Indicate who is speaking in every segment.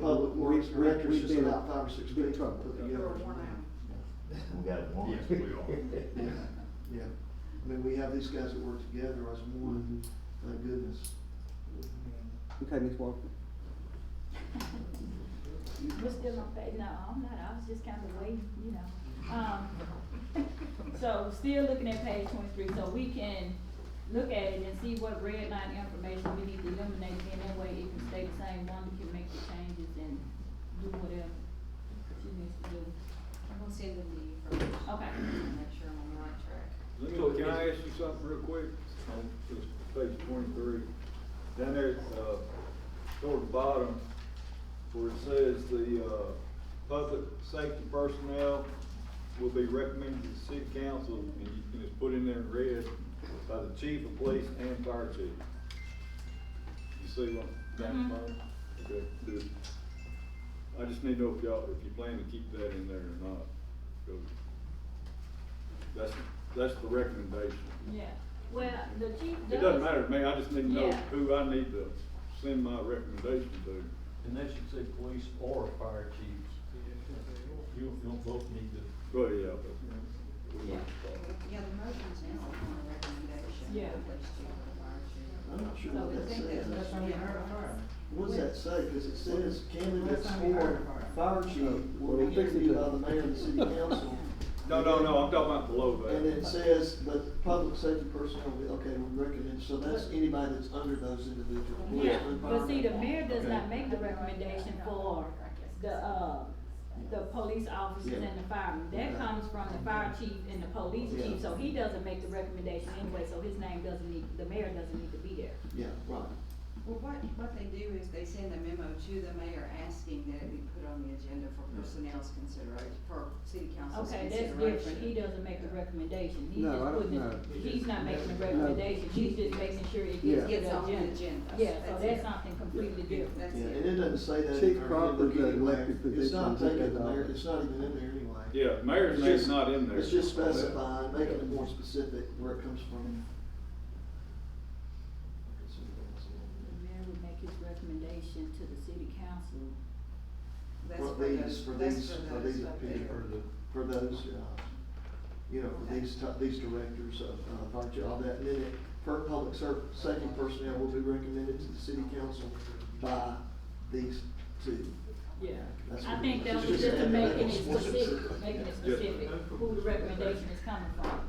Speaker 1: these directors
Speaker 2: we've
Speaker 1: just
Speaker 2: been
Speaker 1: about
Speaker 2: in
Speaker 1: five or six
Speaker 2: big
Speaker 1: people
Speaker 2: trouble.
Speaker 1: put
Speaker 3: They're
Speaker 1: together.
Speaker 3: worn out.
Speaker 4: We got one.
Speaker 5: Yes, we are.
Speaker 1: Yeah, yeah. I mean, we have these guys that work together as one,
Speaker 2: Mm-hmm.
Speaker 1: thank goodness.
Speaker 2: Okay, Ms. Walker.
Speaker 6: We're still on phase, no, I'm not, I was just kind of waiting, you know. Um, so still looking at page twenty-three, so we can look at it and see what red line information we need to eliminate, then that way it can stay the same, one can make the changes and do whatever she needs to do.
Speaker 7: I'm gonna send them to you first.
Speaker 6: Okay.
Speaker 7: Make sure I'm on the right track.
Speaker 8: Let me, can I ask you something real quick? On this page twenty-three, down there, uh, toward the bottom, where it says the, uh, public safety personnel will be recommended to the city council, and you can just put in there in red, by the chief of police and fire chief. You see what, I'm down the bottom? Okay, good. I just need to know if y'all, if you plan to keep that in there or not, 'cause that's, that's the recommendation.
Speaker 6: Yeah, well, the chief does.
Speaker 8: It doesn't matter to me, I just need to know
Speaker 6: Yeah.
Speaker 8: who I need to send my recommendation to.
Speaker 4: And that should say police or fire chiefs. You don't both need to.
Speaker 8: But yeah, but.
Speaker 6: Yeah.
Speaker 7: Yeah, the motion's now upon the recommendation.
Speaker 6: Yeah.
Speaker 1: I'm not sure what
Speaker 7: So I
Speaker 1: that
Speaker 7: think that's
Speaker 1: says.
Speaker 7: what's being heard.
Speaker 1: What does that say? Cause it says candidates
Speaker 7: Well, that's
Speaker 1: for fire chief
Speaker 2: Oh,
Speaker 1: will be interviewed by the mayor and the city council.
Speaker 8: No, no, no, I'm talking about below that.
Speaker 1: And it says that public safety personnel, will be- okay, we recommend, so that's anybody that's under those individual. police,
Speaker 6: Yeah, but see, the
Speaker 1: environment.
Speaker 6: mayor does
Speaker 1: Okay.
Speaker 6: not make the recommendation for the, uh, the police officers
Speaker 1: Yeah.
Speaker 6: and the firemen. That
Speaker 1: Okay.
Speaker 6: comes from the fire chief and the police
Speaker 1: Yeah.
Speaker 6: chief, so he doesn't make the recommendation anyway, so his name doesn't need, the mayor doesn't need to be there.
Speaker 1: Yeah, right.
Speaker 7: Well, what, what they do is they send a memo to the mayor asking that it be put on the agenda for personnel's consideration, for city council's
Speaker 6: Okay, that's
Speaker 7: consideration.
Speaker 6: different, he doesn't make the recommendation, he's
Speaker 2: No,
Speaker 6: just
Speaker 2: I don't-
Speaker 6: putting,
Speaker 2: no.
Speaker 6: it- he's not making the
Speaker 2: No.
Speaker 6: recommendation, he's just making sure it gets
Speaker 2: Yeah.
Speaker 6: to
Speaker 7: Gets
Speaker 6: the
Speaker 7: on the
Speaker 6: agenda.
Speaker 7: agenda.
Speaker 6: Yeah, so
Speaker 7: it.
Speaker 6: that's something completely different.
Speaker 7: That's
Speaker 1: Yeah,
Speaker 7: it.
Speaker 1: and it doesn't say that.
Speaker 2: Chief
Speaker 1: in there,
Speaker 2: Cropper's
Speaker 1: in the
Speaker 2: an elected
Speaker 1: mayor. It's not
Speaker 2: position,
Speaker 1: taken
Speaker 2: take that
Speaker 1: there,
Speaker 2: off.
Speaker 1: it's not even in there anyway.
Speaker 8: Yeah, mayor's
Speaker 1: It's
Speaker 8: name's
Speaker 1: just-
Speaker 8: not in there.
Speaker 1: It's just specifying, making it more specific where it comes from.
Speaker 6: The mayor would make his recommendation to the city council.
Speaker 7: That's
Speaker 1: For
Speaker 7: those-
Speaker 1: these, for
Speaker 7: that's
Speaker 1: these, for
Speaker 7: those
Speaker 1: these,
Speaker 7: up
Speaker 1: opinion-
Speaker 7: there.
Speaker 1: for the- for those, uh, you know, for these, ti- these directors uh, of, of our job, that minute, per public ser, safety personnel will be recommended to the city council by these two.
Speaker 6: Yeah,
Speaker 1: That's
Speaker 6: I
Speaker 1: what
Speaker 6: think
Speaker 1: it
Speaker 6: that
Speaker 1: is.
Speaker 6: was just
Speaker 1: Just
Speaker 6: making it
Speaker 1: adding that.
Speaker 6: specific, making it
Speaker 1: Yeah.
Speaker 6: specific, who the recommendation is coming from.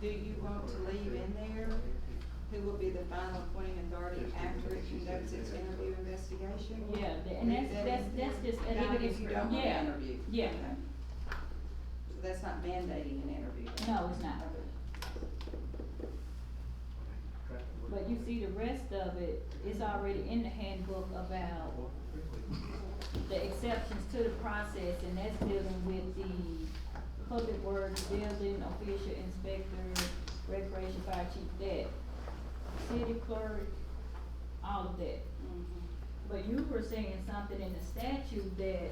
Speaker 7: Do you want to leave in there who will be the final appointing authority after it conducts its interview investigation?
Speaker 6: Yeah, tha- and that's, that's, that's just.
Speaker 7: Even if you don't want to
Speaker 6: Yeah,
Speaker 7: interview?
Speaker 6: Yeah,
Speaker 7: Okay. So That's not mandating an interview?
Speaker 6: no, it's not. But you see, the rest of it is already in the handbook about the exceptions to the process, and that's dealing with the public works, building, official inspector, recreation fire chief, that, city clerk, all of that.
Speaker 7: Mhm.
Speaker 6: But you were saying something in the statute that.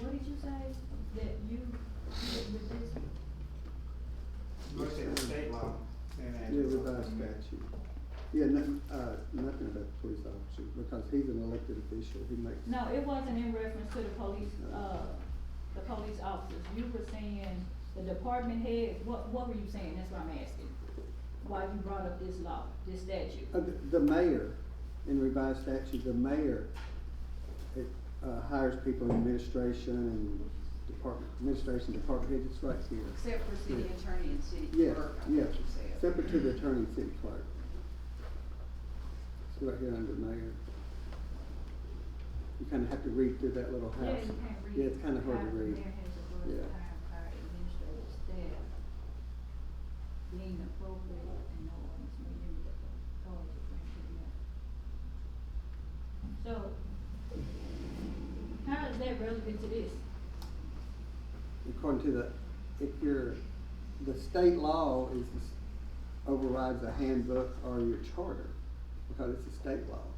Speaker 6: What did you say, that you, did with this?
Speaker 9: Look at the state law. and then-
Speaker 2: Yeah, revised statute. Yeah, nothing, uh, nothing about the police officer, because he's an elected official, he makes.
Speaker 6: No, it wasn't in reference to the police, uh, the police officers, you were saying the department head, what, what were you saying, that's what I'm asking? Why you brought up this law, this statute?
Speaker 2: Uh, the- The mayor, in revised statute, the mayor, it, uh, hires people in administration and department, administration, department head, it's right here.
Speaker 7: Except for city
Speaker 2: Yeah.
Speaker 7: attorney and city
Speaker 2: Yeah,
Speaker 7: clerk, I think
Speaker 2: yeah,
Speaker 7: you said.
Speaker 2: separate to the attorney and city clerk. See right here under mayor. You kinda have to read through that little
Speaker 6: Yeah, you
Speaker 2: house.
Speaker 6: can't read.
Speaker 2: Yeah, it's kinda hard to read. Yeah.
Speaker 6: Higher mayor has the word higher administrative staff being appropriate and no ordinance may limit the authority of the mayor. So, how is that relevant to this?
Speaker 2: according to the, if you're, the state law is, overrides a handbook or your charter, because it's a state law.